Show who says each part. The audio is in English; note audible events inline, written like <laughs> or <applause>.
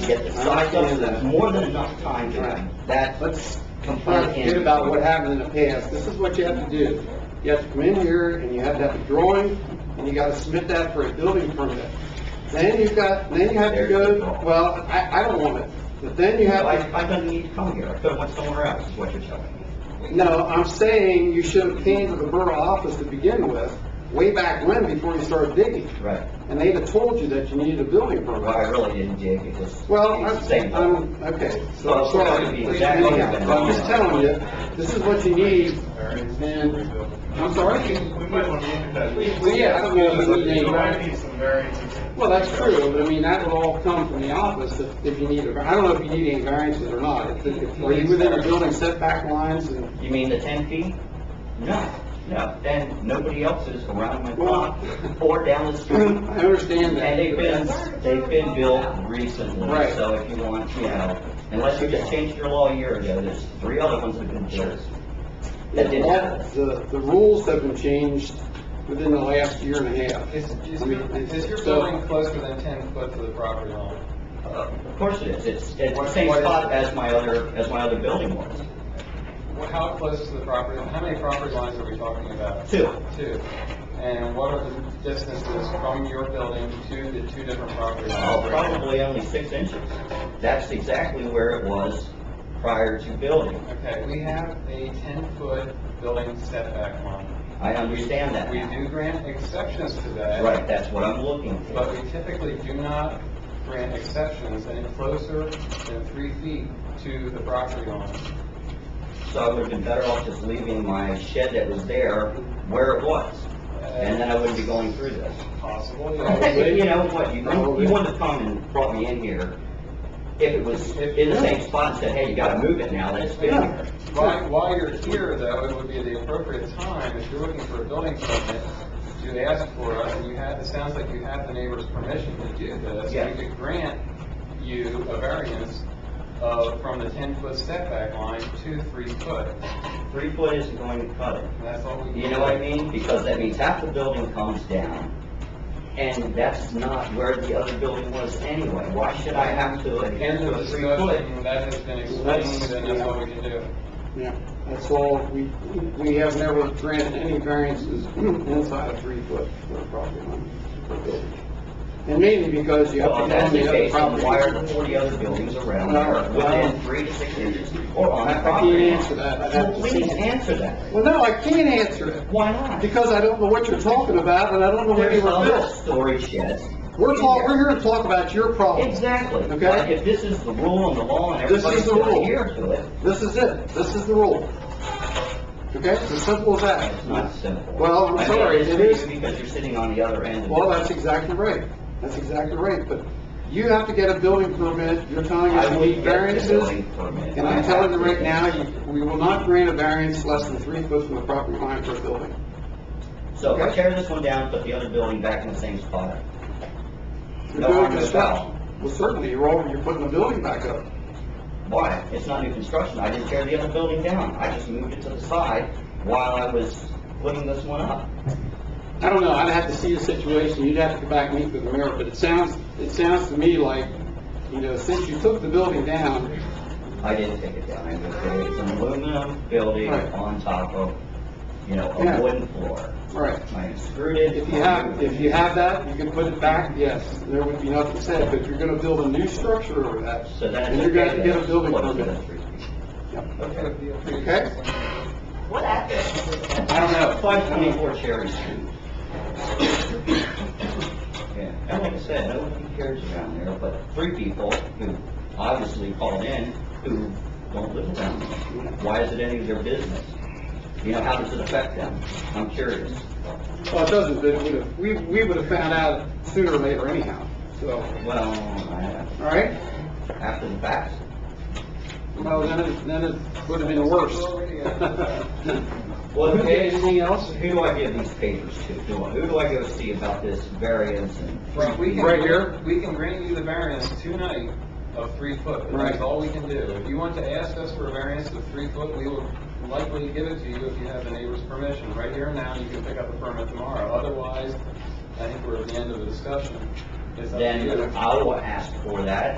Speaker 1: get the
Speaker 2: I
Speaker 1: site
Speaker 2: understand
Speaker 1: in
Speaker 2: that.
Speaker 1: there.
Speaker 2: More than enough time to
Speaker 1: Right. That
Speaker 2: Let's
Speaker 1: complaint.
Speaker 2: forget about what happened in the past. This is what you have to do. You have to come in here and you have to have a drawing and you gotta submit that for a building permit. Then you've got, then you have to go, well, I, I don't want it. But then you
Speaker 1: So I,
Speaker 2: have
Speaker 1: I don't need to come here, I could have went somewhere else, is what you're telling me.
Speaker 2: to, no, I'm saying you should have came to the borough office to begin with, way back when, before you started digging.
Speaker 1: Right.
Speaker 2: And they'd have told you that you needed a building
Speaker 1: Well, I
Speaker 2: permit.
Speaker 1: really didn't dig, it just.
Speaker 2: Well,
Speaker 1: it's the same
Speaker 2: I'm,
Speaker 1: thing.
Speaker 2: I'm, okay, so
Speaker 1: Well,
Speaker 2: I'm
Speaker 1: it's gonna
Speaker 2: sorry,
Speaker 1: be
Speaker 2: There's
Speaker 1: exactly
Speaker 2: many-
Speaker 1: what-
Speaker 2: I'm just telling you, this is what you need, and, I'm sorry?
Speaker 3: We might want to look at that.
Speaker 2: Well, yeah, I don't know if we need-
Speaker 3: You might need some variances.
Speaker 2: Well, that's true, but I mean, that would all come from the office if, if you need, a- I don't know if you need any variances or not. If- if- Are you within the building setback lines and, <clears throat>
Speaker 1: You mean the ten feet? No, no, then nobody else is around my
Speaker 2: Well-
Speaker 1: block or down the
Speaker 2: I
Speaker 1: street.
Speaker 2: understand
Speaker 1: And they've been,
Speaker 2: that.
Speaker 1: they've been built recently,
Speaker 2: Right.
Speaker 1: so if you want, you know, unless you just changed your law a year ago, there's three other ones that have been built. That didn't happen.
Speaker 2: The, the rules have been changed within the last year and a half.
Speaker 4: Is, is
Speaker 2: I mean,
Speaker 4: your, is your
Speaker 2: so-
Speaker 4: building closer than ten foot to the property line?
Speaker 1: Of course it is, it's, it's the
Speaker 4: What-
Speaker 1: same
Speaker 4: what is-
Speaker 1: spot as my other, as my other building was.
Speaker 4: Well, How close to the property, how many property lines are we talking about?
Speaker 1: Two.
Speaker 4: Two. And what are the distances from your building to the two different property
Speaker 1: Oh,
Speaker 4: lines?
Speaker 1: probably only six inches. That's exactly where it was prior to building.
Speaker 4: Okay, we have a ten-foot building setback line.
Speaker 1: I understand that
Speaker 4: We
Speaker 1: now.
Speaker 4: do grant exceptions to that.
Speaker 1: Right, that's what I'm looking
Speaker 4: But
Speaker 1: for.
Speaker 4: we typically do not grant exceptions any closer than three feet to the property line.
Speaker 1: So I would've been better off just leaving my shed that was there where it was, and then I wouldn't be going through this.
Speaker 4: Possible, yeah.
Speaker 1: You know what, you, you wouldn't have come and brought me in here if it was in the same spot and said, hey, you gotta move it now that it's been here.
Speaker 4: While, while you're here, though, it would be the appropriate time, if you're looking for a building permit, to ask for us, and you have, it sounds like you have the neighbor's permission to do this.
Speaker 1: Yeah.
Speaker 4: We could grant you a variance of, from the ten-foot setback line to three foot.
Speaker 1: Three foot isn't going to cut it.
Speaker 4: And that's all we.
Speaker 1: You know what I mean? Because that means half the building comes down, and that's not where the other building was anyway. Why should I have to adhere
Speaker 4: End
Speaker 1: to
Speaker 4: of
Speaker 1: a three foot?
Speaker 4: discussion, that has been
Speaker 2: Let's-
Speaker 4: explained, and that's all we can do.
Speaker 2: Yeah, that's all, we, we have never granted any variances inside a three-foot property line. And mainly because you have
Speaker 1: Well,
Speaker 2: to
Speaker 1: if that's
Speaker 2: go on
Speaker 1: the
Speaker 2: the other
Speaker 1: case, then
Speaker 2: property.
Speaker 1: why are the forty other buildings around there within three to six inches or on
Speaker 2: I
Speaker 1: that
Speaker 2: can't
Speaker 1: property?
Speaker 2: answer that. I'd have
Speaker 1: Well,
Speaker 2: to
Speaker 1: Please
Speaker 2: see.
Speaker 1: answer that.
Speaker 2: Well, no, I can't answer it,
Speaker 1: Why not?
Speaker 2: because I don't know what you're talking about, and I don't know where they
Speaker 1: There's
Speaker 2: were
Speaker 1: other
Speaker 2: built.
Speaker 1: storage sheds.
Speaker 2: We're talk, we're here to talk about your problem.
Speaker 1: Exactly.
Speaker 2: Okay.
Speaker 1: But if this is the rule and the law and
Speaker 2: This
Speaker 1: everybody's
Speaker 2: is the
Speaker 1: gonna
Speaker 2: rule.
Speaker 1: adhere to it,
Speaker 2: This is it, this is the rule. Okay, it's as simple as
Speaker 1: it's
Speaker 2: that.
Speaker 1: not simple.
Speaker 2: Well, I'm
Speaker 1: I mean,
Speaker 2: sorry,
Speaker 1: it's
Speaker 2: it is-
Speaker 1: Because you're sitting on the other end. of it.
Speaker 2: Well, that's exactly right, that's exactly right, but you have to get a building permit, you're telling us
Speaker 1: I
Speaker 2: you
Speaker 1: would
Speaker 2: need
Speaker 1: get
Speaker 2: variances.
Speaker 1: the building permit.
Speaker 2: And I'm telling you right now, you- we will not grant a variance less than three foot from the property line for a building.
Speaker 1: So if I tear this one down, put the other building back in the same spot.
Speaker 2: You're
Speaker 1: No harm,
Speaker 2: doing
Speaker 1: no foul.
Speaker 2: construction. Well, certainly, you're over, you're putting the building back up.
Speaker 1: Why? It's not new construction. I didn't tear the other building down. I just moved it to the side while I was putting this one up.
Speaker 2: I don't know, I'd have to see the situation, you'd have to go back and meet with the mayor, but it sounds, it sounds to me like, you know, since you took the building down,
Speaker 1: I didn't take it down. I just did it. It's an aluminum building
Speaker 2: Right.
Speaker 1: on top of, you know,
Speaker 2: Yeah.
Speaker 1: a wooden floor.
Speaker 2: all right.
Speaker 1: I screwed it.
Speaker 2: If you have, if you have that, you can put it back, yes, there would be nothing said, but if you're gonna build a new structure over that,
Speaker 1: So then
Speaker 2: then
Speaker 1: it's
Speaker 2: you're gonna have
Speaker 1: okay
Speaker 2: to get a
Speaker 1: that
Speaker 2: building
Speaker 1: it's closer
Speaker 2: permit.
Speaker 1: than three feet.
Speaker 2: Yep.
Speaker 1: Okay.
Speaker 2: Okay?
Speaker 5: What address?
Speaker 2: I don't know.
Speaker 1: Five twenty-four Cherry Street. <coughs> Yeah, and like I said, nobody cares around there, but three people who obviously called in who don't live around there. Why is it any of their business? You know, how does it affect them? I'm curious.
Speaker 2: Well, it doesn't, but it would've, we, we would've found out sooner or later anyhow, so,
Speaker 1: Well, I-
Speaker 2: all right?
Speaker 1: after the fact,
Speaker 2: Well, then it, then it would've been worse. <laughs>
Speaker 1: Well, who
Speaker 2: Okay,
Speaker 1: gave-
Speaker 2: anything else?
Speaker 1: who do I give these papers to? Do I- Who do I go see about this variance and?
Speaker 4: We can-
Speaker 2: Right here?
Speaker 4: We can grant you the variance tonight of three foot, but
Speaker 2: Right.
Speaker 4: that's all we can do. If you want to ask us for a variance of three foot, we will likely give it to you if you have the neighbor's permission. Right here and now, you can pick up the permit tomorrow. Otherwise, I think we're at the end of the discussion. It's up to you.
Speaker 1: Then I will ask for that